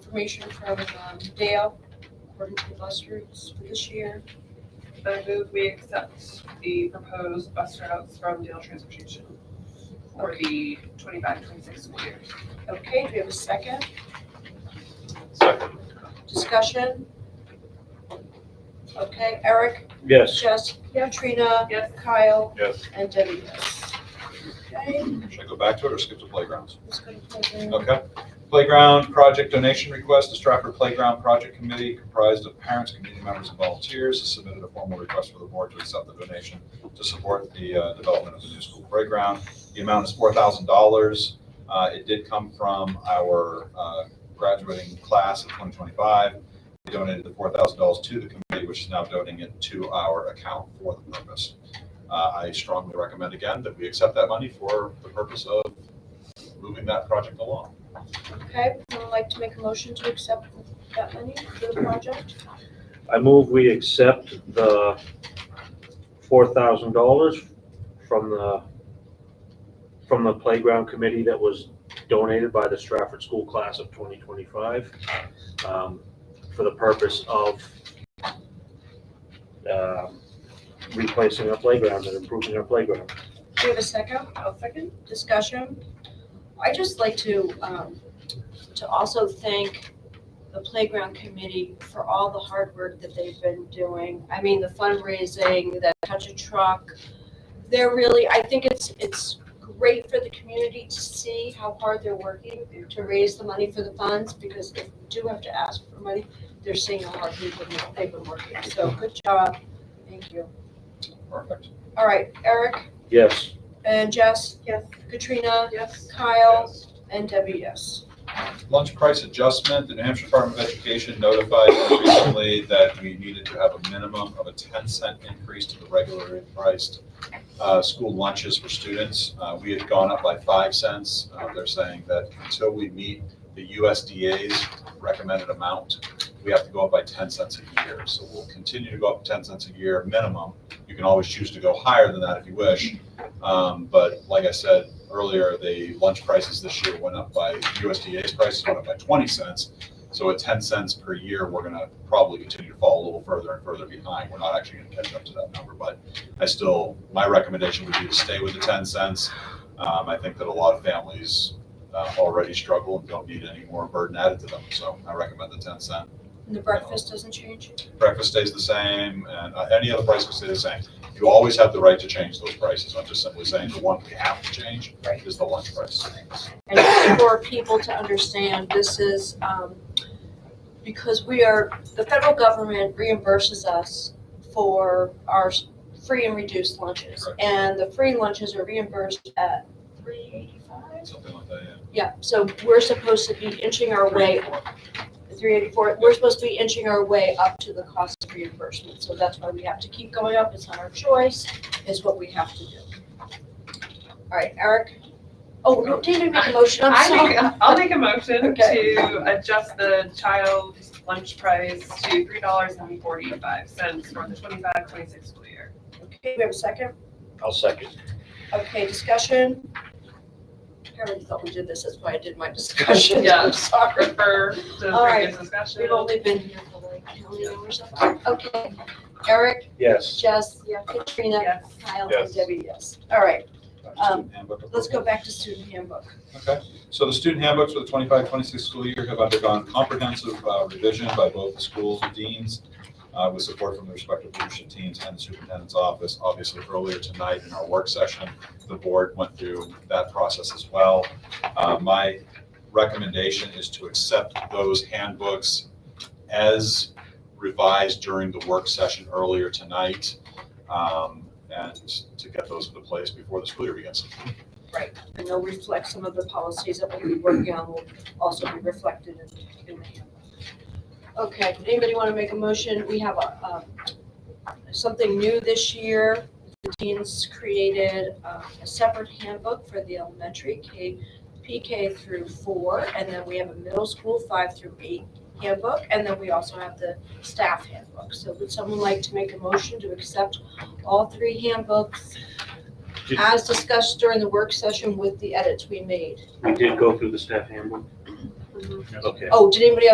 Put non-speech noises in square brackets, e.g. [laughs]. information from um, Dale, according to the bus routes for this year. I move we accept the proposed bus routes from Dale Transportation for the 25-26 school year. Okay, do we have a second? Second. Discussion? Okay, Eric, Yes. Jess, Katrina, Yes. Kyle, Yes. and Debbie, yes. Okay, Should I go back to it or skip to playgrounds? let's go to playground. Okay. Playground project donation request, the Stratford Playground Project Committee comprised of parents, community members, and volunteers has submitted a formal request for the board to accept the donation to support the uh, development of the new school playground. The amount is four thousand dollars. Uh, It did come from our uh, graduating class of twenty twenty-five. We donated the four thousand dollars to the committee, which is now donating it to our account for the purpose. Uh, I strongly recommend again that we accept that money for the purpose of moving that project along. Okay, would like to make a motion to accept that money for the project? I move we accept the four thousand dollars from the, from the playground committee that was donated by the Stratford School Class of twenty twenty-five, um, for the purpose of, um, replacing our playground and improving our playground. Do you have a second? I'll second. discussion. i just like to, um, to also thank the playground committee for all the hard work that they've been doing. I mean, the fundraising, the touch a truck. They're really, I think it's, it's great for the community to see how hard they're working to raise the money for the funds, because if we do have to ask for money, they're seeing how hard they've been, they've been working. So good job. Thank you. Perfect. All right, Eric Yes, and Jess, Yes. Katrina, Yes. Kyle, and Debbie, yes. Lunch price adjustment, the New Hampshire Department of Education notified us recently that we needed to have a minimum of a ten cent increase to the regularly priced uh, school lunches for students. Uh, We had gone up by five cents. Uh, They're saying that until we meet the USDA's recommended amount, we have to go up by ten cents a year. So we'll continue to go up ten cents a year minimum. You can always choose to go higher than that if you wish. Um, But like I said, earlier, the lunch prices this year went up by, USDA's prices went up by 20 cents. So at 10 cents per year, we're going to probably continue to fall a little further and further behind. We're not actually going to catch up to that number, but I still, my recommendation would be to stay with the 10 cents. Um, I think that a lot of families uh, already struggle and don't need any more burden added to them. So I recommend the 10 cent. And the breakfast doesn't change? Breakfast stays the same and uh, any other price will stay the same. You always have the right to change those prices. I'm just simply saying the one we have to change Right. is the lunch price. And just for people to understand, this is, um, because we are, the federal government reimburses us for our s- free and reduced lunches. Correct. And the free lunches are reimbursed at three eighty-five? Something like that, yeah. Yeah, so we're supposed to be inching our way, three eighty-four, we're supposed to be inching our way up to the cost of reimbursement. So that's why we have to keep going up, it's not our choice, it's what we have to do. All right, Eric? Oh, no, David made a motion, I'm I sorry. make, I'll make a motion Okay. to adjust the child's lunch price to three dollars and forty-five cents for the 25-26 school year. Okay, we have a second? I'll second. Okay, discussion? I already thought we did this, that's why I did my discussion, Yeah. I'm [laughs] sorry. Refer to All right. previous discussion. We've only been here for like, how many hours? Okay, Eric, Yes. Jess, Katrina, Yes. Kyle, and Yes. Debbie, yes. All right, Back to Um, student handbook Let's go approval. back to student handbook. Okay, so the student handbooks for the 25-26 school year have undergone comprehensive uh, revision by both the schools and deans uh, with support from the respective leadership teams and the superintendent's office. Obviously, earlier tonight in our work session, the board went through that process as well. Uh, My recommendation is to accept those handbooks as revised during the work session earlier tonight um, and to get those into place before the school year begins. And they'll reflect some of the policies that we'll be working on will also be reflected in, in the handbook. Okay, Does anybody want to make a motion? We have a, um, something new this year. The teens created uh, a separate handbook for the elementary K, PK through four. And then we have a middle school five through eight handbook. And then we also have the staff handbook. So would someone like to make a motion to accept all three handbooks Did- as discussed during the work session with the edits we made. We did go through the staff handbook. Okay. Oh, did anybody